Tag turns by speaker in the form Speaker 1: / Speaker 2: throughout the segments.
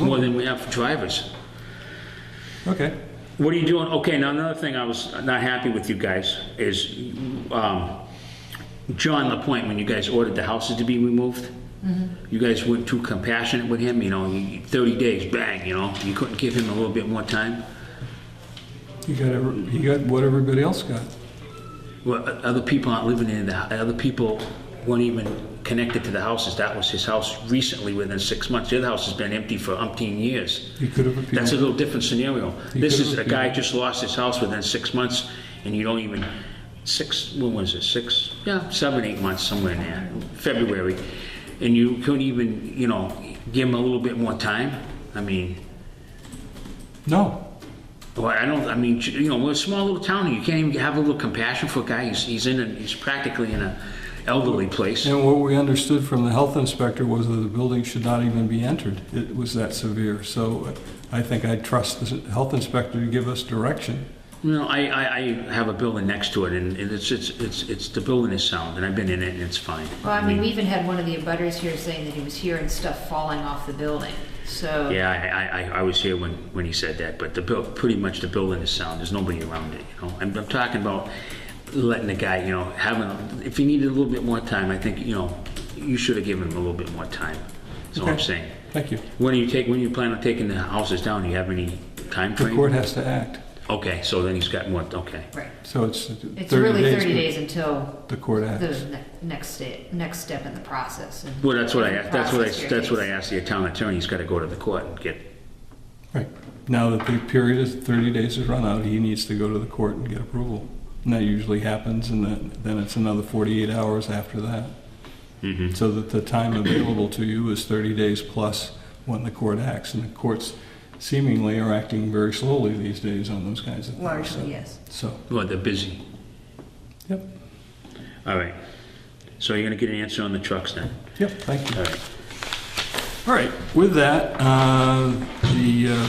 Speaker 1: more than we have for drivers.
Speaker 2: Okay.
Speaker 1: What are you doing? Okay, now another thing I was not happy with you guys is um, John Lapointe, when you guys ordered the houses to be removed, you guys were too compassionate with him, you know, you- 30 days, bang, you know, you couldn't give him a little bit more time.
Speaker 2: You got, every- you got what everybody else got.
Speaker 1: Well, o- other people aren't living in the, hou- other people weren't even connected to the houses. That was his house recently, within six months. The other house has been empty for umpteen years.
Speaker 2: You could have
Speaker 1: That's a
Speaker 2: appealed.
Speaker 1: little different scenario.
Speaker 2: You
Speaker 1: This
Speaker 2: could
Speaker 1: is a
Speaker 2: have-
Speaker 1: guy just lost his house within six months, and you don't even, six, when was it, six? Yeah, seven, eight months, somewhere in there, February. And you couldn't even, you know, give him a little bit more time? I mean,
Speaker 2: No.
Speaker 1: well, I don't, I mean, you know, we're a small little town, and you can't even have a little compassion for a guy, he's, he's in, a- he's practically in a elderly place.
Speaker 2: And what we understood from the health inspector was that the building should not even be entered. It was that severe. So uh, I think I trust the health inspector to give us direction.
Speaker 1: You know, I, I, I have a building next to it, and and it's, it's, it's, it's, the building is sound, and I've been in it, and it's fine.
Speaker 3: Well, I mean, we even had one of the abutters here saying that he was hearing stuff falling off the building, so.
Speaker 1: Yeah, I, I- I, I was here when, when he said that, but the build, pretty much the building is sound, there's nobody around it, you know? I'm, I'm talking about letting the guy, you know, having, if he needed a little bit more time, I think, you know, you should have given him a little bit more time, that's all I'm
Speaker 2: Okay.
Speaker 1: saying.
Speaker 2: Thank you.
Speaker 1: When do you take, when do you plan on taking the houses down, do you have any time
Speaker 2: The
Speaker 1: frame?
Speaker 2: court has to act.
Speaker 1: Okay, so then he's got more, okay.
Speaker 3: Right.
Speaker 2: So it's 30 days.
Speaker 3: It's really 30
Speaker 2: but
Speaker 3: days until
Speaker 2: The court acts.
Speaker 3: the ne- next step, next step in the process. and-
Speaker 1: Well, that's what I, asked. that's what I,
Speaker 3: Process your
Speaker 1: that's what I
Speaker 3: case.
Speaker 1: asked the town attorney, he's gotta go to the court and get,
Speaker 2: Right. Now that the period is 30 days has run out, he needs to go to the court and get approval. And that usually happens, and then, then it's another 48 hours after that. So that the time available to you is 30 days plus when the court acts. And the courts seemingly are acting very slowly these days on those kinds of things. So-
Speaker 3: Largely, yes.
Speaker 2: So,
Speaker 1: well, they're busy.
Speaker 2: yep,
Speaker 1: All right, so you're gonna get an answer on the trucks then?
Speaker 2: yep, thank you.
Speaker 1: All right.
Speaker 2: All right, with that, uh, the, uh,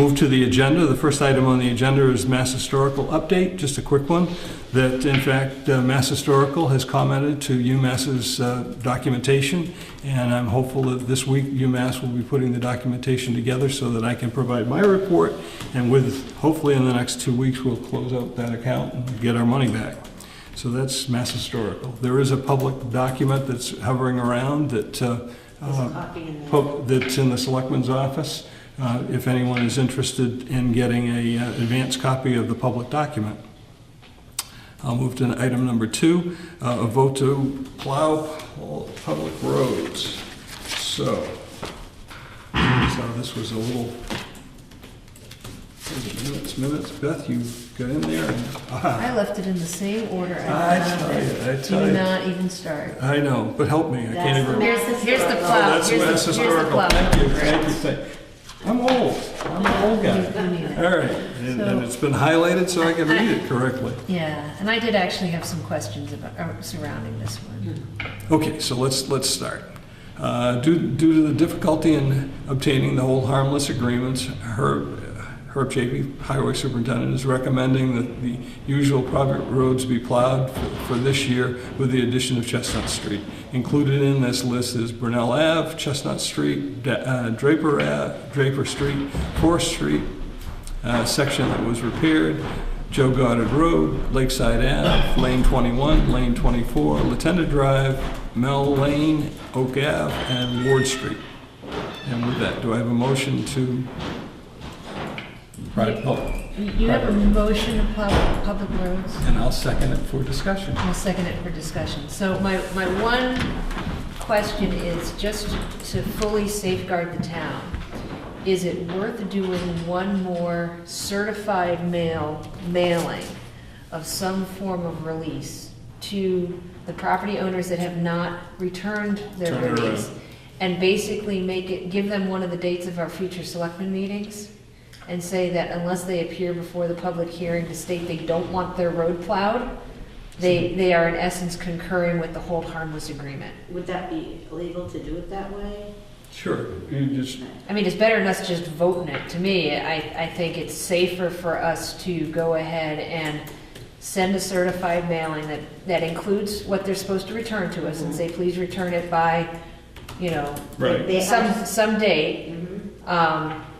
Speaker 2: move to the agenda. The first item on the agenda is Mass Historical update, just a quick one, that in fact, uh, Mass Historical has commented to UMass's uh, documentation, and I'm hopeful that this week UMass will be putting the documentation together so that I can provide my report, and with, hopefully in the next two weeks, we'll close out that account and get our money back. So that's Mass Historical. There is a public document that's hovering around that, uh, uh, pub- that's in the selectman's office, uh, if anyone is interested in getting a uh, advanced copy of the public document. I'll move to item number two, uh, a vote to plow all public roads. So, so this was a little, minutes, minutes, Beth, you got in there and, aha.
Speaker 3: I left it in the same order I
Speaker 2: I
Speaker 3: found
Speaker 2: tell
Speaker 3: it.
Speaker 2: you, I tell you.
Speaker 3: Do not even start.
Speaker 2: I know, but help me, I can't even. remember.
Speaker 3: Here's the, here's the
Speaker 2: Oh,
Speaker 3: plow,
Speaker 2: that's-
Speaker 3: here's
Speaker 2: that's
Speaker 3: the, here's the
Speaker 2: historical.
Speaker 3: plow.
Speaker 2: Thank you, thank you, thank you. I'm old, I'm an old guy.
Speaker 3: Yeah.
Speaker 2: All right, and and it's been highlighted so I can read it correctly.
Speaker 3: Yeah, and I did actually have some questions about, uh, surrounding this one.
Speaker 2: Okay, so let's, let's start. Uh, Due due to the difficulty in obtaining the whole harmless agreements, Herb Herb Chapey, Highway Superintendent, is recommending that the usual private roads be plowed for- for this year with the addition of Chestnut Street. Included in this list is Brunel Ave, Chestnut Street, Da- uh, Draper Ave, Draper Street, Forest Street, uh, section that was repaired, Joe Goddard Road, Lakeside Ave, Lane 21, Lane 24, Latenda Drive, Mel Lane, Oak Ave, and Ward Street. And with that, do I have a motion to? Right, oh,
Speaker 3: You- You have a motion to plow public roads?
Speaker 2: and I'll second it for discussion.
Speaker 3: I'll second it for discussion. So my, my one question is, just to fully safeguard the town, is it worth doing one more certified mail, mailing of some form of release to the property owners that have not returned their
Speaker 2: Turn it around.
Speaker 3: release? And basically make it, give them one of the dates of our future selectmen meetings? And say that unless they appear before the public hearing to state they don't want their road plowed, they, they are in essence concurring with the hold harmless agreement.
Speaker 4: Would that be illegal to do it that way?
Speaker 2: Sure, you just,
Speaker 3: I mean, it's better than us just voting it. To me, I, I think it's safer for us to go ahead and send a certified mailing that, that includes what they're supposed to return to us and say, please return it by, you know,
Speaker 2: right,
Speaker 4: They
Speaker 3: some,
Speaker 4: have- Mm-hmm.
Speaker 3: some date. Um,